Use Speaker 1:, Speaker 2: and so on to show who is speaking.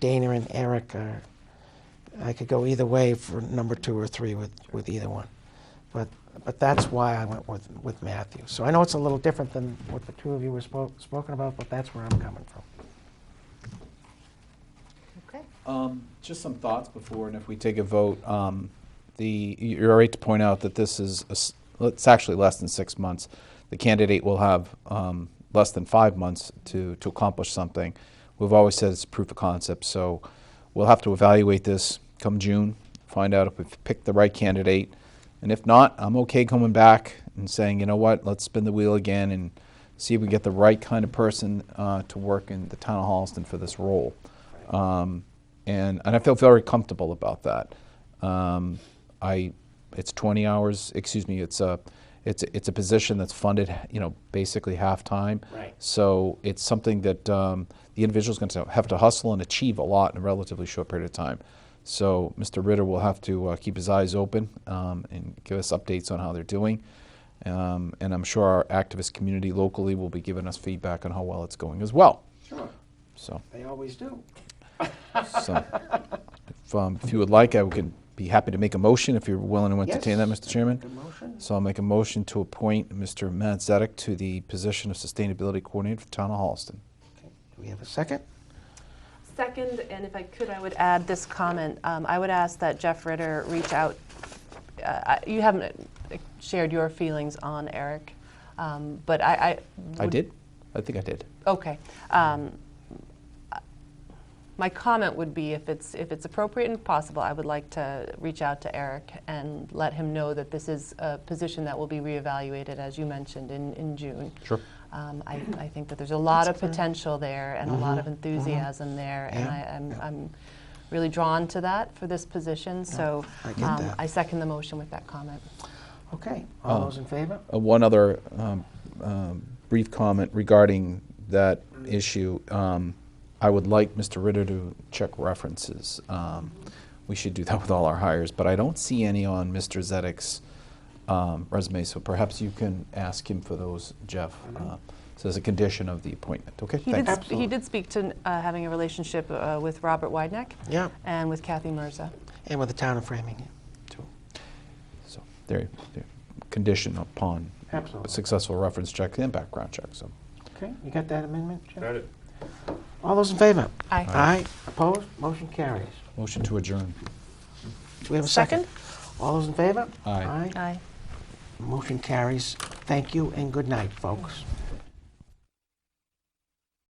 Speaker 1: Dana and Eric are, I could go either way for number two or three with, with either one. But, but that's why I went with, with Matthew. So I know it's a little different than what the two of you were spoke, spoken about, but that's where I'm coming from.
Speaker 2: Okay.
Speaker 3: Um, Just some thoughts before, and if we take a vote, um, the, you're right to point out that this is, a s- it's actually less than six months. The candidate will have um, less than five months to, to accomplish something. We've always said it's proof of concept, so we'll have to evaluate this come June, find out if we've picked the right candidate. And if not, I'm okay coming back and saying, you know what, let's spin the wheel again and see if we get the right kind of person uh, to work in the town of Holliston for this role. Um, and, and I feel very comfortable about that. Um, I, it's 20 hours, excuse me, it's a, it's, a- it's a position that's funded, you know, basically half-time.
Speaker 1: Right.
Speaker 3: So it's something that um, the individual's going to have to hustle and achieve a lot in a relatively short period of time. So Mr. Ritter will have to uh, keep his eyes open um, and give us updates on how they're doing. Um, and I'm sure our activist community locally will be giving us feedback on how well it's going as well.
Speaker 1: Sure,
Speaker 3: So,
Speaker 1: they always do.
Speaker 3: so if, um, if you would like, I would be happy to make a motion if you're willing to entertain that,
Speaker 1: Yes.
Speaker 3: Mr. Chairman.
Speaker 1: Good motion.
Speaker 3: So I'll make a motion to appoint Mr. Matt Zedek to the position of Sustainability Coordinator for Town of Holliston.
Speaker 1: Okay. Do we have a second?
Speaker 2: Second, and if I could, I would add this comment. Um, I would ask that Jeff Ritter reach out. Uh, I- you haven't uh, shared your feelings on Eric, um, but I. I,
Speaker 3: I
Speaker 2: would-
Speaker 3: did? I think I did.
Speaker 2: Okay. Um, I- my comment would be if it's if it's appropriate and possible, I would like to reach out to Eric and let him know that this is a position that will be reevaluated, as you mentioned, in, in June.
Speaker 3: Sure.
Speaker 2: Um, I, I think that there's a lot of potential there and a lot of enthusiasm there, and
Speaker 1: Mm-hmm. Yeah,
Speaker 2: I, I'm, I'm really drawn to that for this position. So um,
Speaker 1: I get that.
Speaker 2: I second the motion with that comment.
Speaker 1: Okay, all those in favor?
Speaker 3: Uh, One other um, um, brief comment regarding that issue. Um, I would like Mr. Ritter to check references. Um, We should do that with all our hires, but I don't see any on Mr. Zedek's um, resume, so perhaps you can ask him for those, Jeff. uh, So as a condition of the appointment, okay?
Speaker 2: He
Speaker 3: thanks.
Speaker 2: did, sp-
Speaker 1: Absolutely.
Speaker 2: he did speak to uh, having a relationship uh, with Robert Wideneck
Speaker 1: Yeah,
Speaker 2: and with Kathy Mirza.
Speaker 1: and with the town of Framingham, too.
Speaker 3: So there, there, condition upon
Speaker 1: Absolutely.
Speaker 3: successful reference check and background check, so.
Speaker 1: Okay, you got that amendment, Jim?
Speaker 4: Got it.
Speaker 1: All those in favor?
Speaker 2: Aye.
Speaker 1: Aye, opposed, motion carries.
Speaker 3: Motion to adjourn.
Speaker 1: Do we have a second? All those in favor?
Speaker 3: Aye.
Speaker 1: Aye. Motion carries. Thank you and good night, folks.